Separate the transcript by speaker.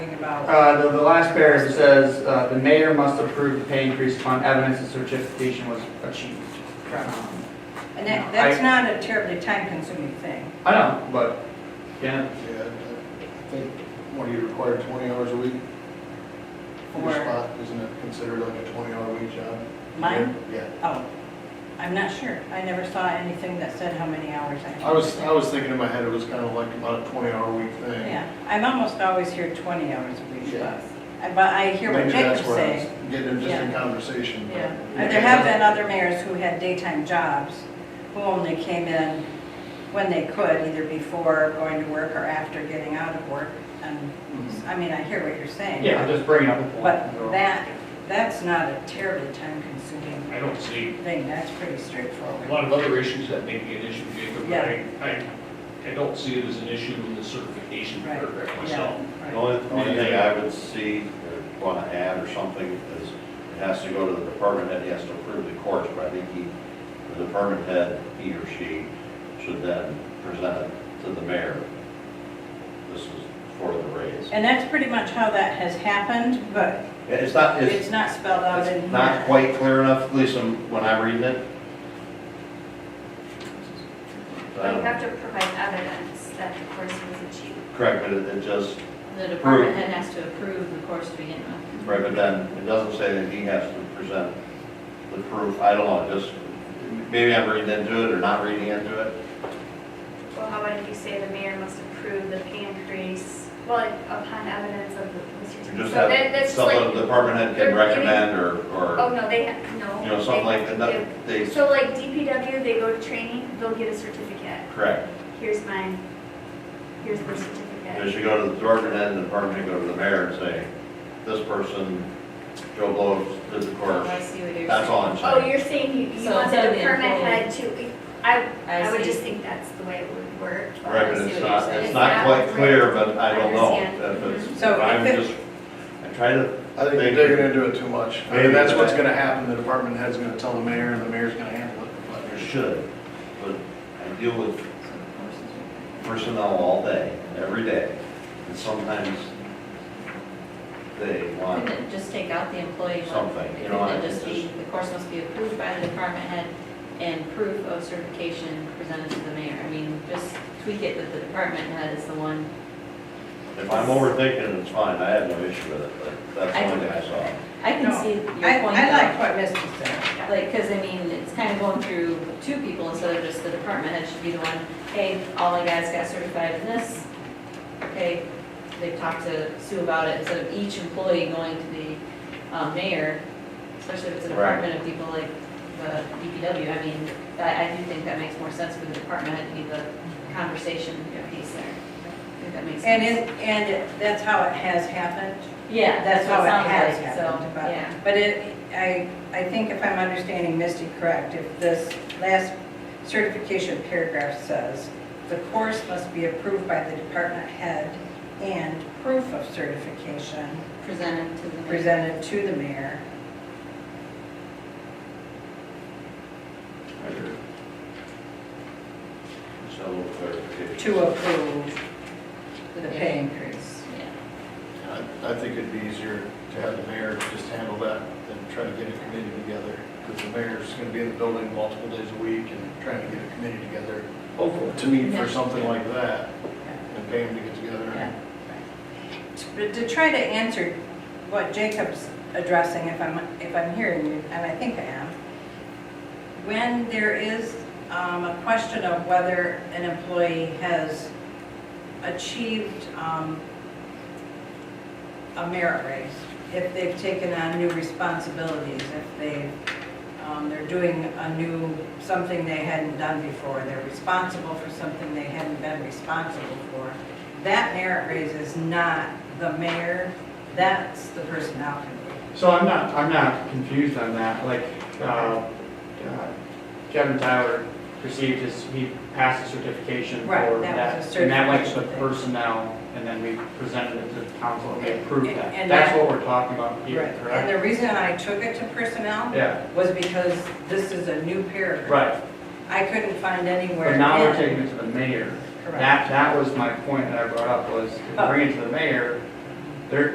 Speaker 1: about?
Speaker 2: Uh, the, the last paragraph says, uh, the mayor must approve the pay increase upon evidence that certification was achieved.
Speaker 1: Correct.
Speaker 2: Um,
Speaker 1: And that, that's not a terribly time-consuming thing.
Speaker 2: I know, but, yeah,
Speaker 3: Yeah, I think, what, you require twenty hours a week? for Your
Speaker 1: Or-
Speaker 3: spot, isn't it considered like a twenty-hour week job?
Speaker 1: Mine?
Speaker 3: Yeah,
Speaker 1: Oh, I'm not sure. I never saw anything that said how many hours I had.
Speaker 3: I was, I was thinking in my head, it was kind of like about a twenty-hour week thing.
Speaker 1: Yeah, I'm almost always here 20 hours a week,
Speaker 3: Yeah.
Speaker 1: plus. I- but I hear what
Speaker 3: Maybe that's
Speaker 1: Jacob's
Speaker 3: where I was
Speaker 1: saying.
Speaker 3: Getting into just in
Speaker 1: Yeah.
Speaker 3: conversation. but-
Speaker 1: Yeah, And there have been other mayors who had daytime jobs, who only came in when they could, either before going to work or after getting out of work. And,
Speaker 3: Mhm.
Speaker 1: I mean, I hear what you're saying.
Speaker 2: yeah, I'm just bringing up a point.
Speaker 1: But that, that's not a terribly time-consuming
Speaker 4: I don't see
Speaker 1: thing, that's pretty
Speaker 4: a
Speaker 1: straightforward.
Speaker 4: lot of other issues that may be an issue, Jacob, but
Speaker 1: Yeah.
Speaker 4: I, I, I don't see it as an issue in the certification
Speaker 1: Right,
Speaker 4: paragraph
Speaker 1: Yeah,
Speaker 4: myself.
Speaker 1: right.
Speaker 5: The only, the only thing I would see, or want to add or something, is it has to go to the department head, he has to approve the course, but I think he, the department head, he or she, should then present it to the mayor. This is for the raise.
Speaker 1: And that's pretty much how that has happened, but
Speaker 5: It's not, it's,
Speaker 1: it's not spelled out in here.
Speaker 5: it's not quite clear enough, at least in- when I'm reading it.
Speaker 6: But you
Speaker 5: Um,
Speaker 6: have to provide evidence that the course was achieved.
Speaker 5: Correct, but it it just,
Speaker 7: The department
Speaker 5: Approve.
Speaker 7: head has to approve the course to begin with.
Speaker 5: Right, but then it doesn't say that he has to present the proof. I don't know, just, maybe I'm reading into it or not reading into it.
Speaker 6: Well, how about if you say the mayor must approve the pay increase, well, upon evidence of the.
Speaker 5: You just
Speaker 6: So that-
Speaker 5: have
Speaker 6: that's
Speaker 5: something
Speaker 6: like-
Speaker 5: the department head
Speaker 6: they're
Speaker 5: can
Speaker 6: giving-
Speaker 5: recommend or,
Speaker 6: Oh,
Speaker 5: or,
Speaker 6: no, they, ha- no.
Speaker 5: you know, something
Speaker 6: they
Speaker 5: like
Speaker 6: have
Speaker 5: that.
Speaker 6: to give-
Speaker 5: Not- They,
Speaker 6: So like DPW, they go to training, they'll get a certificate.
Speaker 5: correct.
Speaker 6: Here's mine, here's their
Speaker 5: They
Speaker 6: certificate.
Speaker 5: should go to the department head and the department head go to the mayor and say, this person, Joe Blow, did the
Speaker 7: Oh,
Speaker 5: course.
Speaker 7: I see what you're saying.
Speaker 5: That's all I'm
Speaker 6: Oh,
Speaker 5: saying.
Speaker 6: you're saying you, you
Speaker 7: So
Speaker 6: want the
Speaker 7: instead of the
Speaker 6: department
Speaker 7: employee-
Speaker 6: head to, I,
Speaker 7: I
Speaker 6: I would
Speaker 7: see.
Speaker 6: just think that's the way it would work. but-
Speaker 5: Right,
Speaker 7: I
Speaker 5: but
Speaker 7: see
Speaker 5: it's
Speaker 7: what you're
Speaker 5: not,
Speaker 7: saying.
Speaker 5: it's
Speaker 6: It's
Speaker 5: not quite
Speaker 6: not
Speaker 5: clear,
Speaker 6: clear.
Speaker 5: but I don't
Speaker 6: I
Speaker 5: know.
Speaker 6: understand.
Speaker 5: If it's,
Speaker 1: So
Speaker 5: I'm
Speaker 1: if it-
Speaker 5: just, I try to,
Speaker 3: I think you're digging into it too much. I mean,
Speaker 5: Maybe.
Speaker 3: that's what's gonna happen, the department head's gonna tell the mayor, and the mayor's gonna handle it. but
Speaker 5: I
Speaker 3: there's-
Speaker 5: should, but I deal with
Speaker 7: So the course is-
Speaker 5: personnel all day, every day, and sometimes they want,
Speaker 7: Couldn't it just take out the employee? one?
Speaker 5: Something, you know,
Speaker 7: Couldn't
Speaker 5: I-
Speaker 7: it just be, the course must be approved by the department head and proof of certification presented to the mayor? I mean, just tweak it that the department head is the one.
Speaker 5: if I'm overthinking, it's fine, I have no issue with it, but that's the
Speaker 7: I-
Speaker 5: only thing I saw.
Speaker 7: I can
Speaker 1: No,
Speaker 7: see your point.
Speaker 1: I, I
Speaker 7: though.
Speaker 1: like what Misty said.
Speaker 7: Like, because I mean, it's kind of going through two people instead of just the department head should be the one, hey, all my guys got certified in this. Okay, they've talked to Sue about it, instead of each employee going to the um, mayor, especially if it's a department of people like the DPW. I mean, I, I do think that makes more sense for the department head to be the conversation piece there. I think that makes
Speaker 1: And
Speaker 7: sense.
Speaker 1: it, and it- that's how it has happened.
Speaker 7: Yeah, that's
Speaker 1: how
Speaker 7: what
Speaker 1: it
Speaker 7: it sounds
Speaker 1: has
Speaker 7: like,
Speaker 1: happened,
Speaker 7: so,
Speaker 1: but-
Speaker 7: yeah.
Speaker 1: But it, I, I think if I'm understanding Misty correct, if this last certification paragraph says, the course must be approved by the department head and proof of certification
Speaker 7: Presented to the mayor.
Speaker 1: presented to the mayor.
Speaker 5: Just a little clarification.
Speaker 1: to approve the pay increase.
Speaker 7: Yeah.
Speaker 3: I, I think it'd be easier to have the mayor just handle that than try to get a committee together, because the mayor's gonna be in the building multiple days a week and trying to get a committee together. Hopefully. To meet for something like that, and pay them to get together.
Speaker 1: Yeah. But to try to answer what Jacob's addressing, if I'm, if I'm hearing you, and I think I am, when there is um, a question of whether an employee has achieved um, a merit raise, if they've taken on new responsibilities, if they, um, they're doing a new, something they hadn't done before, they're responsible for something they hadn't been responsible for, that merit raise is not the mayor, that's the personnel committee.
Speaker 2: So I'm not, I'm not confused on that, like, uh, uh, Kevin Tyler received his, he passed a certification
Speaker 1: Right,
Speaker 2: for
Speaker 1: that
Speaker 2: that.
Speaker 1: was a
Speaker 2: And that went to the
Speaker 1: certification thing.
Speaker 2: personnel, and then we presented it to the council, and they approved that.
Speaker 1: And
Speaker 2: That's
Speaker 1: that-
Speaker 2: what we're talking about here,
Speaker 1: And
Speaker 2: correct?
Speaker 1: the reason I took it to personnel
Speaker 2: Yeah,
Speaker 1: was because this is a new paragraph.
Speaker 2: right,
Speaker 1: I couldn't find anywhere.
Speaker 2: but now we're
Speaker 1: in-
Speaker 2: taking it to the mayor.
Speaker 1: Correct.
Speaker 2: That, that was my point that I brought up, was to bring it to the mayor,